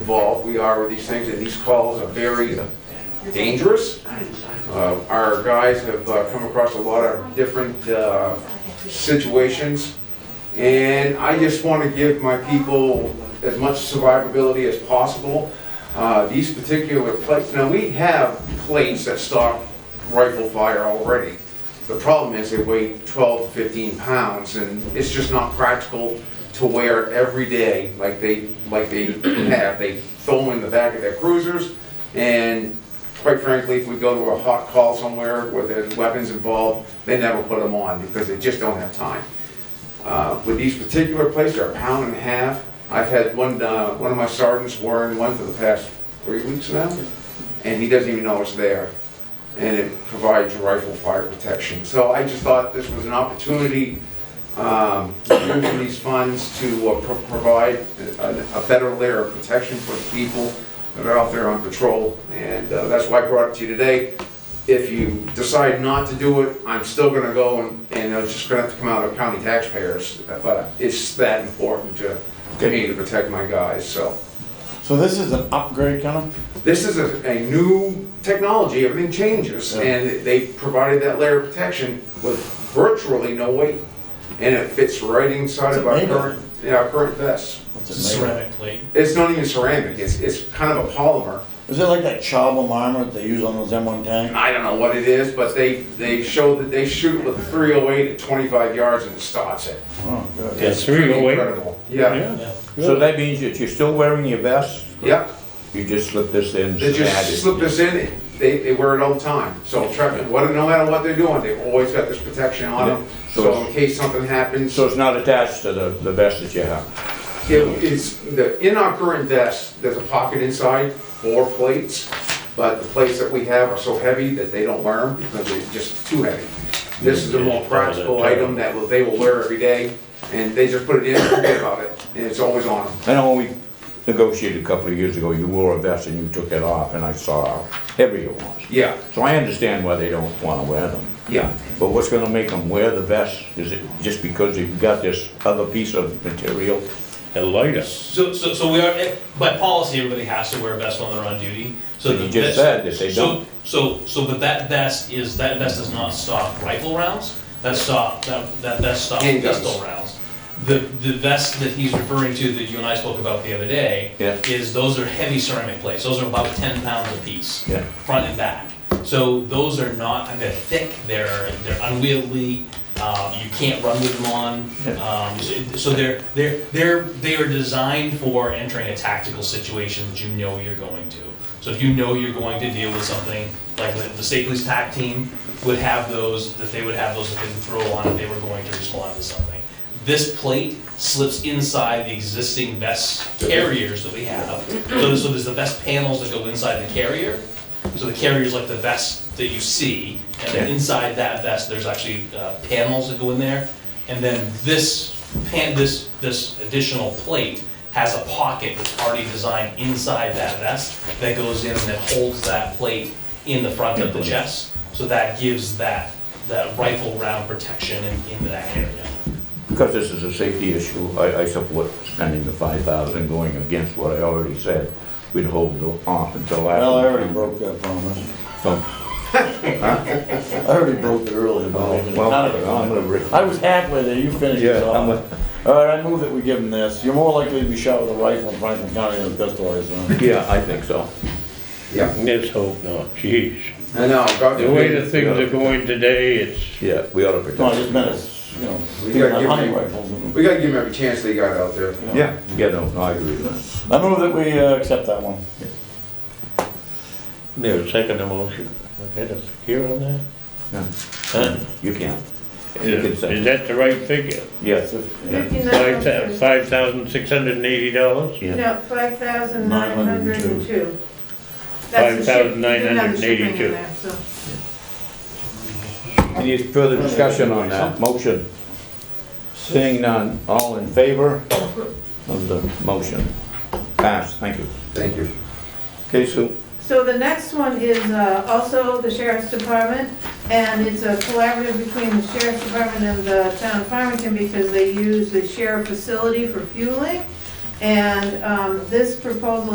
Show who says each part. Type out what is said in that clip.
Speaker 1: involved we are with these things, and these calls are very dangerous. Uh, Our guys have uh, come across a lot of different uh, situations, and I just want to give my people as much survivability as possible. Uh, These particular plates, now we have plates that stop rifle fire already. The problem is they weigh 12 to 15 pounds, and it's just not practical to wear every day like they, like they have. They throw them in the back of their cruisers, and quite frankly, if we go to a hot call somewhere where there's weapons involved, they never put them on because they just don't have time. Uh, With these particular places, they're a pound and a half. I've had one, uh, one of my sergeants wearing one for the past three weeks now, and he doesn't even know it's there. And it provides rifle fire protection. So I just thought this was an opportunity, um, using these funds to uh, pro- provide a a better layer of protection for the people that are out there on patrol. And uh, that's why I brought it to you today. If you decide not to do it, I'm still gonna go and, and it's just gonna have to come out of county taxpayers. But it's that important to, to me to protect my guys, so.
Speaker 2: So this is an upgrade kind of?
Speaker 1: This is a, a new technology, everything changes,
Speaker 2: Yeah.
Speaker 1: and they provided that layer of protection with virtually no weight. And it fits right inside
Speaker 2: It's
Speaker 1: of our
Speaker 2: made of-
Speaker 1: current, yeah, our current vests.
Speaker 2: what's it made of?
Speaker 3: ceramic plate.
Speaker 1: It's not even ceramic, it's, it's kind of a polymer.
Speaker 2: Is it like that charcoal armor that they use on those M1 tanks?
Speaker 1: I don't know what it is, but they, they show that they shoot with a three oh eight at twenty-five yards and it stops it.
Speaker 2: Oh, good.
Speaker 4: Yeah,
Speaker 1: It's pretty
Speaker 4: 308.
Speaker 1: incredible. Yeah,
Speaker 3: Yeah.
Speaker 4: So that means that you're still wearing your vest,
Speaker 1: yeah,
Speaker 4: you just slip this in.
Speaker 1: they
Speaker 4: add it.
Speaker 1: just slip this in, they, they wear it all the time, so trust me, what, no matter what they're doing, they've always got this protection on them,
Speaker 4: Yeah. So
Speaker 1: so
Speaker 4: it's-
Speaker 1: in case something happens,
Speaker 4: So it's not attached to the, the vest that you have?
Speaker 1: it is, the, in our current vest, there's a pocket inside for plates, but the plates that we have are so heavy that they don't wear them because they're just too heavy. This is a more practical item that will- they will wear every day, and they just put it in, and forget about it, and it's always on them.
Speaker 4: I know when we negotiated a couple of years ago, you wore a vest and you took it off, and I saw how heavy it was.
Speaker 1: Yeah,
Speaker 4: So I understand why they don't wanna wear them,
Speaker 1: yeah.
Speaker 4: but what's gonna make them wear the vest? Is it just because you've got this other piece of material?
Speaker 5: And lighter.
Speaker 3: So, so, so we are, by policy, everybody has to wear a vest when they're on duty, so.
Speaker 4: But you
Speaker 3: the
Speaker 4: just
Speaker 3: vest-
Speaker 4: said that they
Speaker 3: so-
Speaker 4: don't.
Speaker 3: So, so, but that vest is, that vest does not stop rifle rounds, that stop, that, that vest stops
Speaker 1: Handguns.
Speaker 3: pistol rounds. The, the vest that he's referring to that you and I spoke about the other day.
Speaker 4: Yeah.
Speaker 3: Is those are heavy ceramic plates, those are about ten pounds apiece.
Speaker 4: Yeah.
Speaker 3: Front and back, so those are not, and they're thick, they're, they're unwieldy, um, you can't run with them on. Um, so- so they're, they're, they're, they are designed for entering a tactical situation that you know you're going to. So if you know you're going to deal with something, like the the state police tac team would have those, that they would have those that they would throw on if they were going to respond to something. This plate slips inside the existing vest carriers that we have. So so there's the vest panels that go inside the carrier. So the carrier's like the vest that you see, and then
Speaker 4: Yeah.
Speaker 3: inside that vest, there's actually uh, panels that go in there. And then this pan, this, this additional plate has a pocket that's already designed inside that vest that goes in and that holds that plate in the front of the chest. So that gives that, that rifle round protection in, in that area.
Speaker 4: Because this is a safety issue, I, I support spending the five thousand going against what I already said. We'd hold off until after.
Speaker 2: Well, I already broke that promise.
Speaker 4: So,
Speaker 2: I already broke it earlier, but I didn't-
Speaker 4: Oh, well,
Speaker 2: none of it.
Speaker 4: I'm gonna re-
Speaker 2: I was halfway there, you finished it
Speaker 4: Yeah, I'm
Speaker 2: off.
Speaker 4: with-
Speaker 2: All right, I move that we give him this. You're more likely to be shot with a rifle in Franklin County than a pistol, I assume.
Speaker 4: Yeah, I think so.
Speaker 1: Yeah,
Speaker 5: Let's hope not, jeez.
Speaker 1: I know. God
Speaker 5: The way the
Speaker 1: forbid.
Speaker 5: things are going today, it's,
Speaker 4: Yeah, we ought to
Speaker 2: No, I
Speaker 4: protect.
Speaker 2: just meant it's, you know,
Speaker 1: We
Speaker 2: people
Speaker 1: gotta
Speaker 2: have
Speaker 1: give
Speaker 2: hunting
Speaker 1: him-
Speaker 2: rifles. and-
Speaker 1: We gotta give them every chance they got out there.
Speaker 4: Yeah, yeah, no, no, I agree with
Speaker 2: I move that we uh, accept that one.
Speaker 5: there's a second emotion. Okay, that's secure on that? Huh?
Speaker 4: that. You can. You can
Speaker 5: Is
Speaker 4: say,
Speaker 5: is that the right figure?
Speaker 4: yes,
Speaker 5: Five thou-
Speaker 6: Fifty-nine,
Speaker 5: five thousand six hundred and eighty dollars?
Speaker 6: no, five thousand nine hundred and two.
Speaker 5: Five thousand nine hundred and eighty-two.
Speaker 4: any further discussion on that motion? Seeing none, all in favor of the motion? Passed, thank you.
Speaker 1: Thank you.
Speaker 4: Okay, Sue?
Speaker 6: So the next one is uh, also the sheriff's department, and it's a collaborative between the sheriff's department and the town of Farmington because they use the sheriff facility for fueling. And um, this proposal